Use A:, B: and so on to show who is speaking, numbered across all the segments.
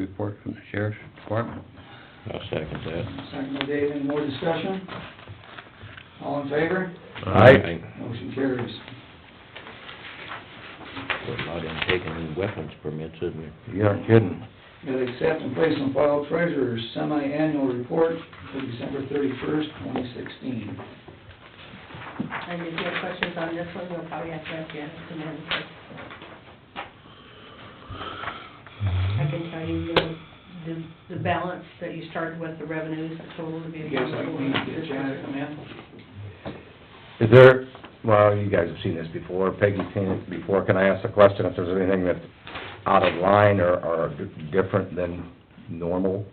A: report from the sheriff's department.
B: I'll second that.
C: Second by Dave, any more discussion? All in favor?
B: Aye.
C: Motion carries.
B: We're not in taking any weapons permits, is we?
A: You aren't kidding.
C: Got to accept and place on file treasurer's semi-annual report for December thirty-first, twenty sixteen.
D: And if you have questions on this one, we'll probably have to ask Janice to manage it. I can tell you, uh, the, the balance that you started with, the revenues, the total to be.
C: You guys like me to get Janet to come in?
E: Is there, well, you guys have seen this before, Peggy's seen it before, can I ask a question if there's anything that's out of line or, or di- different than normal?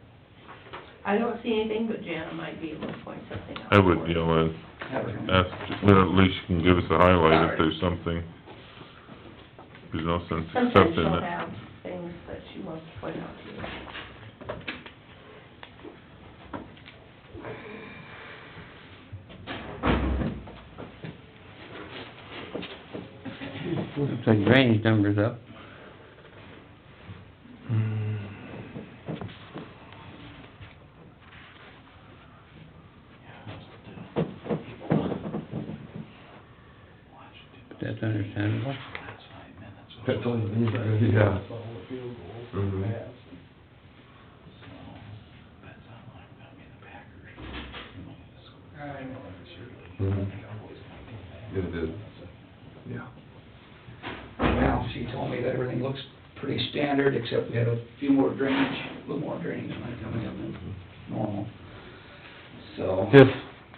D: I don't see anything, but Jana might be able to point something out.
F: I would,
D: for
F: you
D: us.
F: know,
C: Have her come in.
F: ask, well, at least she can give us a highlight if there's something. There's no sense
D: Sometimes
F: accepting
D: she'll
F: it.
D: have things that she wants to point out to you.
A: Looks like drainage numbers up. That's understandable.
G: That's all you need, right? yeah. Mhm. Mhm. It did, yeah.
C: Well, she told me that everything looks pretty standard, except we had a few more drainage, a little more drainage money coming in than normal. So,
E: Just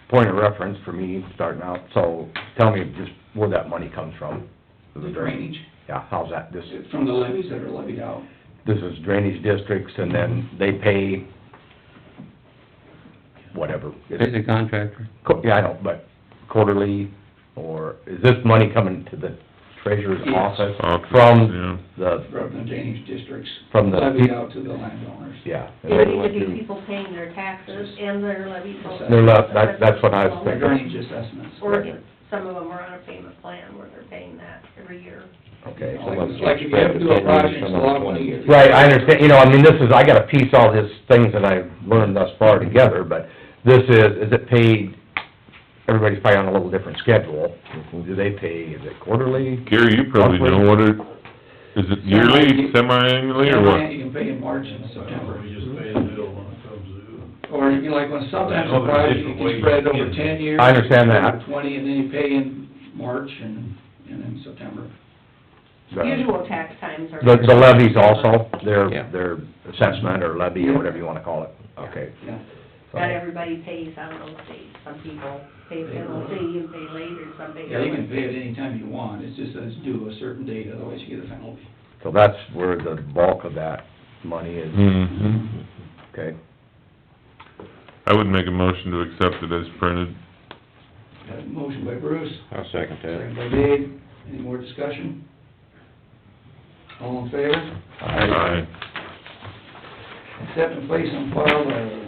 E: point of reference for me starting out, so tell me just where that money comes from.
C: the drainage,
E: Yeah, how's that, this,
C: from the levies that are levied out,
E: this is drainage districts and then they pay whatever.
A: Pay the contractor.
E: Co- Yeah, I know, but quarterly, or is this money coming to the treasurer's
C: Yes.
E: office?
F: Office,
E: From the,
C: from the drainage districts,
E: from
C: levied
E: the,
C: out to the landowners.
E: yeah.
D: It would either be people paying their taxes and their levy. bills.
E: No, that- that- that's what I was
C: Their
E: thinking.
C: drainage assessments.
D: Or if some of them are on a payment plan where they're paying that every year.
E: Okay.
C: Like like if you have to do a project, it's a lot of money. if you-
E: Right, I understand, you know, I mean, this is, I gotta piece all these things that I've learned thus far together, but this is, is it paid, everybody's probably on a little different schedule. Do they pay, is it quarterly?
F: Gary, you probably know what it, is it yearly, semi-annually, or what?
C: You can pay in March and September.
G: We just pay the bill when it comes due.
C: Or you can like, when sometimes
G: Well,
C: a
G: there's
C: project, you
G: different
C: can
G: ways
C: spread it
G: to
C: over
G: get it.
C: ten years.
E: I understand that.
C: over Twenty, and then you pay in March and, and then September.
E: The-
D: Usual tax times are.
E: The, the levies also, their,
A: Yeah.
E: their assessment or levy or whatever you wanna call it, okay.
C: Yeah.
E: so-
D: Not everybody pays on those dates. Some people pay penalty and pay later, some pay.
C: Yeah, you can pay it anytime you want, it's just that it's due a certain date, otherwise you get a penalty.
E: So that's where the bulk of that money is,
F: Mm-hmm.
E: okay?
F: I would make a motion to accept it as printed.
C: Got a motion by Bruce,
B: I'll second that.
C: second by Dave, any more discussion? All in favor?
F: Aye.
C: Accept and place on file the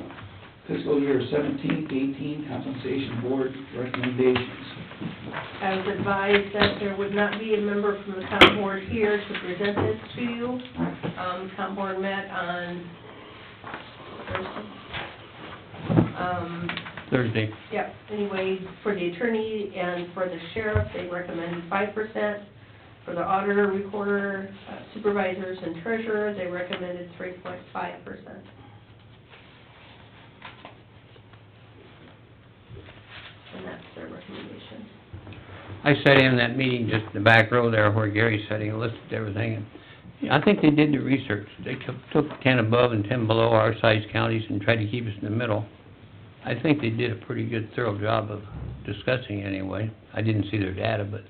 C: fiscal year seventeen eighteen compensation board recommendations.
D: I was advised that there would not be a member from the town board here to present this to you. Um, town board met on Thursday. Um,
A: Thursday,
D: Yep, anyway, for the attorney and for the sheriff, they recommended five percent. For the auditor, recorder, uh, supervisors, and treasurer, they recommended three point five percent. And that's their recommendation.
A: I sat in that meeting just in the back row there where Gary's sitting, and listed everything, and I think they did the research. They took, took ten above and ten below our size counties and tried to keep us in the middle. I think they did a pretty good thorough job of discussing it anyway. I didn't see their data, but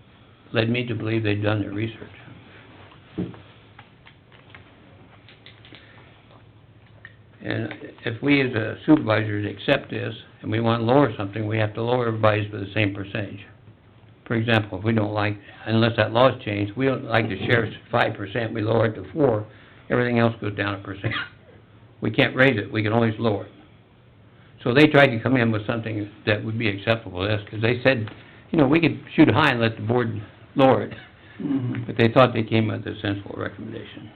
A: led me to believe they'd done their research. And if we as a supervisors accept this, and we want to lower something, we have to lower everybody's by the same percentage. For example, if we don't like, unless that law's changed, we don't like the sheriff's five percent, we lower it to four, everything else goes down a percent. We can't raise it, we can always lower it. So they tried to come in with something that would be acceptable to us, 'cause they said, you know, we could Mm-hmm. shoot high and let the board lower it, but they thought they came with a sensible recommendation.